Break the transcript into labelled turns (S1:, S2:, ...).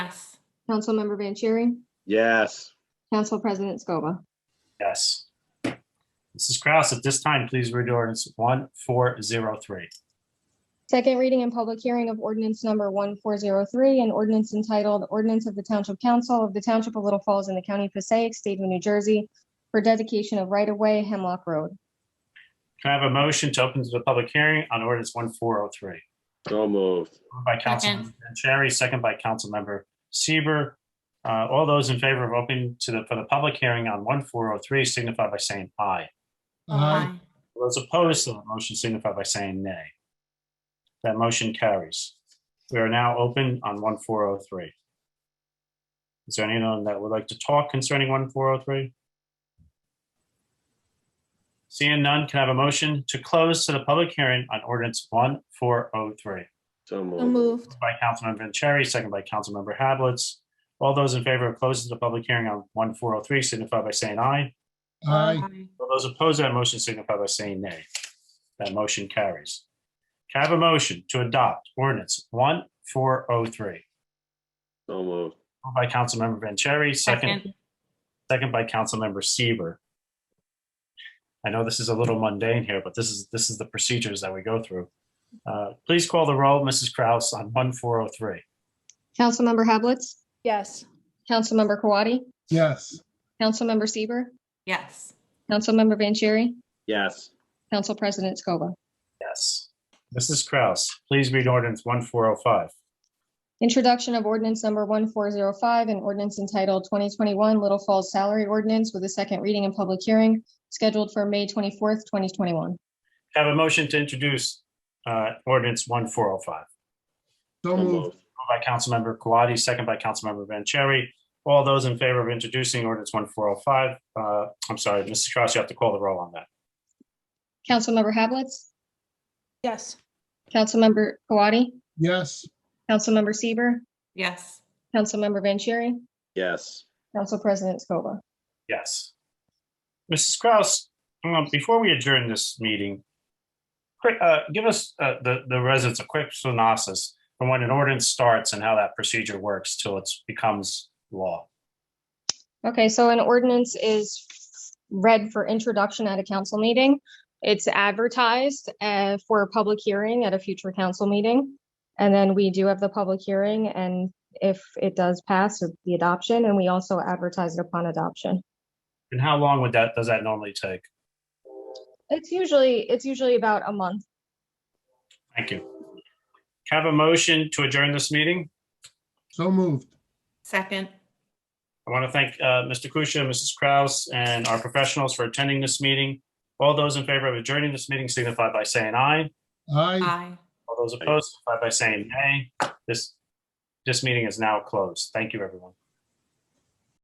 S1: Yes.
S2: Councilmember Vanchery,
S3: Yes.
S2: Council President Scoba.
S4: Yes. Mrs. Kraus, at this time, please read ordinance one four zero three.
S2: Second reading and public hearing of ordinance number 1403, an ordinance entitled Ordinance of the Township Council of the Township of Little Falls in the County of Passaic, State of New Jersey, for dedication of right-of-way Hemlock Road.
S4: Can I have a motion to open to the public hearing on ordinance one four oh three?
S3: So moved.
S4: Moved by Councilmember Vanchery, second by Councilmember Seaver. Uh, all those in favor of opening to the, for the public hearing on one four oh three signify by saying aye.
S1: Aye.
S4: Those opposed to the motion signify by saying nay. That motion carries. We are now open on one four oh three. Is there anyone that would like to talk concerning one four oh three? Seeing none, can I have a motion to close to the public hearing on ordinance one four oh three?
S3: So
S1: So
S3: moved.
S1: moved.
S4: By Councilmember Vanchery, second by Councilmember Hablitz. All those in favor of closing the public hearing on one four oh three signify by saying aye.
S5: Aye.
S4: All those opposed to that motion signify by saying nay. That motion carries. Can I have a motion to adopt ordinance one four oh three?
S3: So moved.
S4: Moved by Councilmember Vanchery, second,
S1: Second.
S4: second by Councilmember Seaver. I know this is a little mundane here, but this is, this is the procedures that we go through. Uh, Please call the roll, Mrs. Kraus, on one four oh three.
S2: Councilmember Hablitz,
S6: Yes.
S2: Councilmember Kawadi,
S5: Yes.
S2: Councilmember Seaver,
S1: Yes.
S2: Councilmember Vanchery,
S3: Yes.
S2: Council President Scoba.
S4: Yes. Mrs. Kraus, please read ordinance one four oh five.
S2: Introduction of ordinance number 1405, an ordinance entitled 2021 Little Falls Salary Ordinance with a second reading and public hearing scheduled for May 24th, 2021.
S4: Have a motion to introduce uh, ordinance one four oh five.
S5: So
S3: So
S5: moved.
S3: moved.
S4: Moved by Councilmember Kwadi, second by Councilmember Vanchery. All those in favor of introducing ordinance one four oh five, uh, I'm sorry, Mrs. Kraus, you have to call the roll on that.
S2: Councilmember Hablitz,
S6: Yes.
S2: Councilmember Kawadi,
S5: Yes.
S2: Councilmember Seaver,
S1: Yes.
S2: Councilmember Vanchery,
S3: Yes.
S2: Council President Scoba.
S4: Yes. Mrs. Kraus, um, before we adjourn this meeting, quick, uh, give us, uh, the, the residents a quick synopsis from when an ordinance starts and how that procedure works till it becomes law.
S2: Okay, so an ordinance is read for introduction at a council meeting. It's advertised uh, for a public hearing at a future council meeting. And then we do have the public hearing and if it does pass, it'd be adoption, and we also advertise it upon adoption.
S4: And how long would that, does that normally take?
S2: It's usually, it's usually about a month.
S4: Thank you. Can I Have a motion to adjourn this meeting?
S5: So moved.
S1: Second.
S4: I want to thank uh, Mr. Kusia, Mrs. Kraus, and our professionals for attending this meeting. All those in favor of adjourning this meeting signify by saying aye.
S5: Aye.
S1: Aye.
S4: All those opposed signify by saying nay. This, this meeting is now closed. Thank you, everyone.